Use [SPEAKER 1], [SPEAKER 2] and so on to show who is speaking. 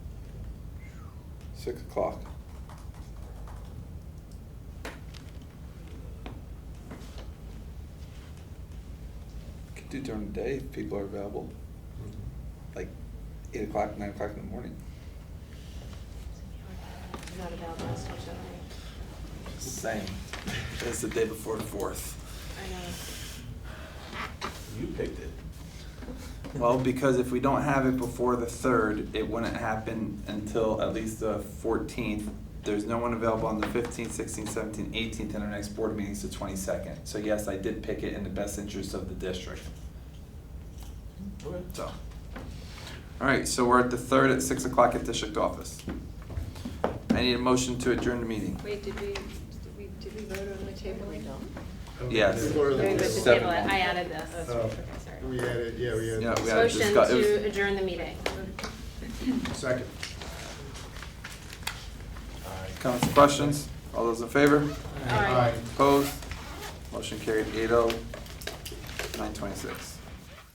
[SPEAKER 1] Six o'clock. Could do during the day if people are available, like eight o'clock, nine o'clock in the morning.
[SPEAKER 2] I'm Not available, it's not showing.
[SPEAKER 1] Same. It's the day before the fourth.
[SPEAKER 2] I know.
[SPEAKER 3] You picked it.
[SPEAKER 1] Well, because if we don't have it before the third, it wouldn't happen until at least the fourteenth. There's no one available on the fifteenth, sixteenth, seventeenth, eighteenth, and our next board meeting's the twenty-second. So yes, I did pick it in the best interest of the district, so. All right, so we're at the third at six o'clock at district office. I need a motion to adjourn the meeting.
[SPEAKER 4] Wait, did we, did we, did we vote on the table? We
[SPEAKER 1] Yes.
[SPEAKER 5] Or the-
[SPEAKER 4] voted to
[SPEAKER 1] Seven.
[SPEAKER 4] table it, I added this.
[SPEAKER 5] Oh.
[SPEAKER 4] Okay, sorry.
[SPEAKER 5] We added, yeah, we added.
[SPEAKER 1] Yeah, we had a
[SPEAKER 2] Motion
[SPEAKER 1] discuss- it
[SPEAKER 2] to
[SPEAKER 1] was-
[SPEAKER 2] adjourn the meeting.
[SPEAKER 5] Second.
[SPEAKER 1] Comments, and questions? All those in favor?
[SPEAKER 2] Aye.
[SPEAKER 1] Opposed? Motion carried eight oh, nine twenty-six.